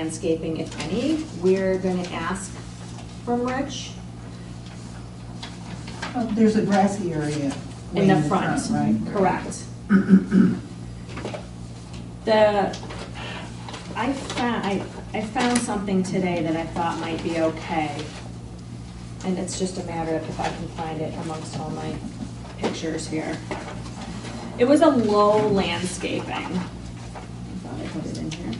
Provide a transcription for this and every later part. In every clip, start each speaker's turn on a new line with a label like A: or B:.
A: landscaping, if any. We're gonna ask from Rich.
B: Uh, There's a grassy area.
A: In
B: way
A: the front, mm-hmm,
B: Right?
A: correct. The, I found, I, I found something today that I thought might be okay. And it's just a matter of if I can find it amongst all my pictures here. It was a low landscaping. I thought I put it in here.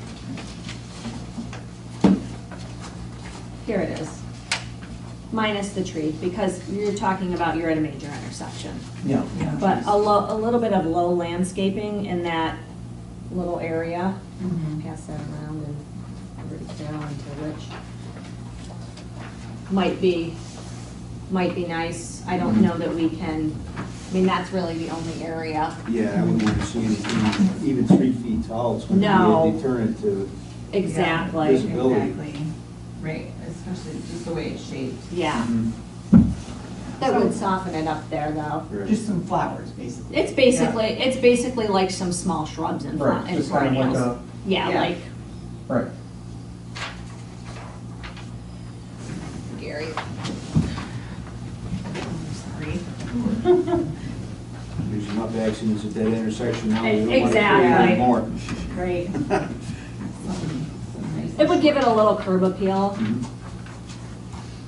A: Here it is. Minus the tree, because you're talking about you're at a major intersection.
B: Yeah.
A: But a lo, a little bit of low landscaping in that little area.
B: Mhm.
A: Pass that around and root it down into Rich. Might be, might be nice. I don't know that we can, I mean, that's really the only area.
C: Yeah, I wouldn't want to see anything, even three feet tall, it's going
A: No.
C: to be a deterrent to,
A: Exactly,
C: There's- Visibility.
D: Exactly, right, especially just the way it's shaped.
A: yeah.
E: Mm-hmm.
A: That would soften it up there, though.
B: Just some flowers, basically.
A: It's basically, it's basically like some small shrubs and fla-
E: Right,
A: and
E: just kind of like
A: perennials. Yeah,
D: Yeah.
A: like
E: Right.
A: Gary.
D: Sorry.
C: there's enough accidents at that intersection now, we don't want to create
A: Exactly.
C: any more.
A: Great. It would give it a little curb appeal.
C: Mhm.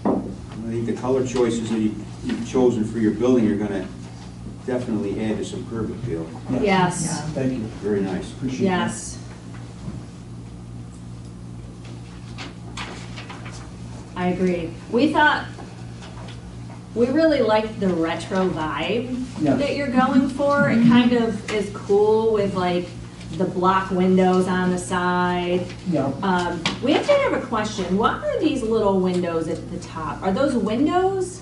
C: I think the color choices that you- you've chosen for your building are going to definitely add to some curb appeal.
A: Yes,
E: Thank you,
C: Very nice.
E: appreciate that.
A: yes. I agree. We thought, we really liked the retro vibe
E: Yes.
A: that you're going for. It kind of is cool with like the block windows on the side.
E: Yeah,
A: Um, we actually have a question. What are these little windows at the top? Are those windows?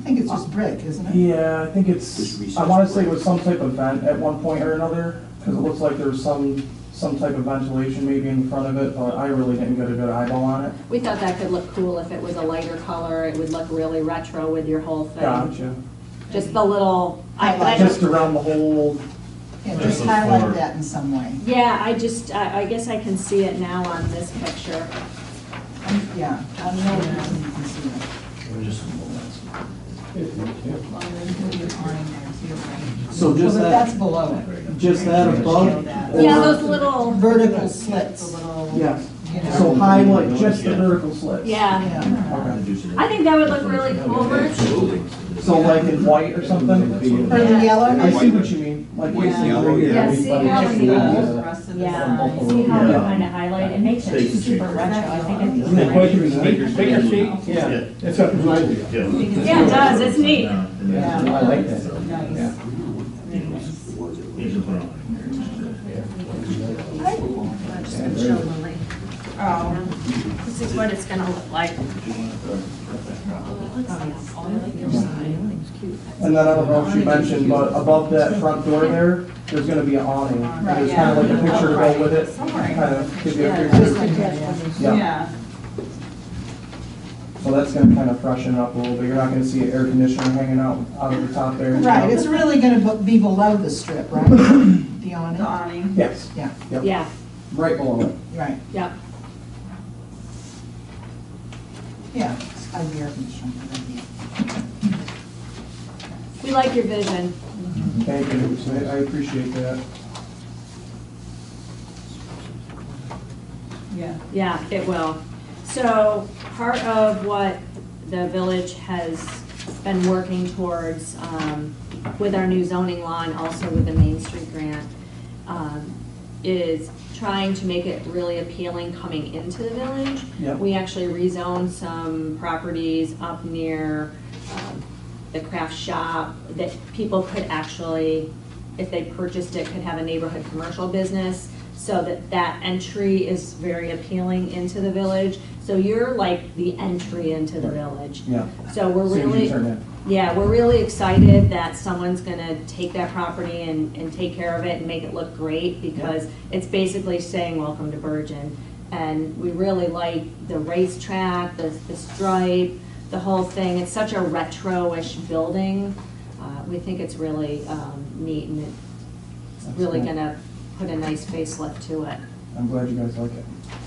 B: I think it's just brick, isn't it?
E: yeah, I think
C: Just
E: it's,
C: recess
E: I wanna say it
C: break.
E: was some type of vent at one point or another, because it looks like there was some, some type of ventilation maybe in front of it, but I really didn't get a good eyeball on it.
A: We thought that could look cool if it was a lighter color. It would look really retro with your whole thing.
E: Gotcha.
A: Just the little, I, I
E: Just around the whole,
B: Yeah,
F: There's
B: just
F: a flower.
B: highlight that in some way.
A: yeah, I just, I, I guess I can see it now on this picture.
B: Yeah. I don't know if you can see it.
D: Well, there's gonna be an awning there too, right?
G: So
B: Well,
G: just
B: but that's
G: that,
B: below it.
G: just that above?
D: Yeah,
A: Yeah,
G: or-
A: those little,
B: Vertical
D: The
B: slits.
D: little.
E: yes,
D: you know.
E: so highlight just the
F: Yeah.
E: vertical slits.
A: yeah.
B: Yeah.
E: Okay,
A: I think that would look really cool, Rich.
E: so like in white or something?
B: Or the
E: I
B: yellow,
E: see what you mean, like.
C: White,
E: you see
C: yellow,
E: right here,
C: yeah.
A: Yeah, see how
D: Just
E: everybody-
D: the
B: Yeah.
D: rest of the
A: Yeah,
D: sign.
A: see how we
G: Yeah.
A: kind of highlight, it makes it super retro, I think it's.
E: Isn't it quite unique?
F: Baker Street,
E: Yeah, it's a,
A: Yeah, it does, it's neat.
E: I like that.
D: Nice.
C: Was it?
A: Oh, this is what it's gonna look like.
E: And then I don't know if she mentioned, but above that front door there, there's gonna be an awning. And there's kind of like a picture to go with it, kind of give you a picture. Yeah,
D: Yeah.
E: so that's gonna kind of freshen it up a little bit. You're not gonna see an air conditioner hanging out, out of the top there.
B: right, it's really gonna be below the strip, right? The
D: The
B: awning,
D: awning.
E: Yes,
B: yeah,
A: Yeah,
E: right below it.
B: right,
A: yep.
B: yeah. I'd be open to showing you
A: We like your vision.
E: Thank you, So I I appreciate that.
D: Yeah.
A: Yeah, it will. So part of what the village has been working towards um, with our new zoning law and also with the Main Street grant um, is trying to make it really appealing coming into the village.
E: Yep.
A: We actually rezoned some properties up near um, the craft shop that people could actually, if they purchased it, could have a neighborhood commercial business so that that entry is very appealing into the village. So you're like the entry into the village.
E: Yeah.
A: So we're
E: As soon as you
A: really,
E: turn in.
A: yeah, we're really excited that someone's gonna take that property and, and take care of it and make it look great because it's basically saying, welcome to Bergen. And we really like the racetrack, the, the stripe, the whole thing. It's such a retro-ish building. Uh, we think it's really, um, neat and it's
E: That's
A: really
E: cool.
A: gonna put a nice facelift to it.
E: I'm glad you guys like it.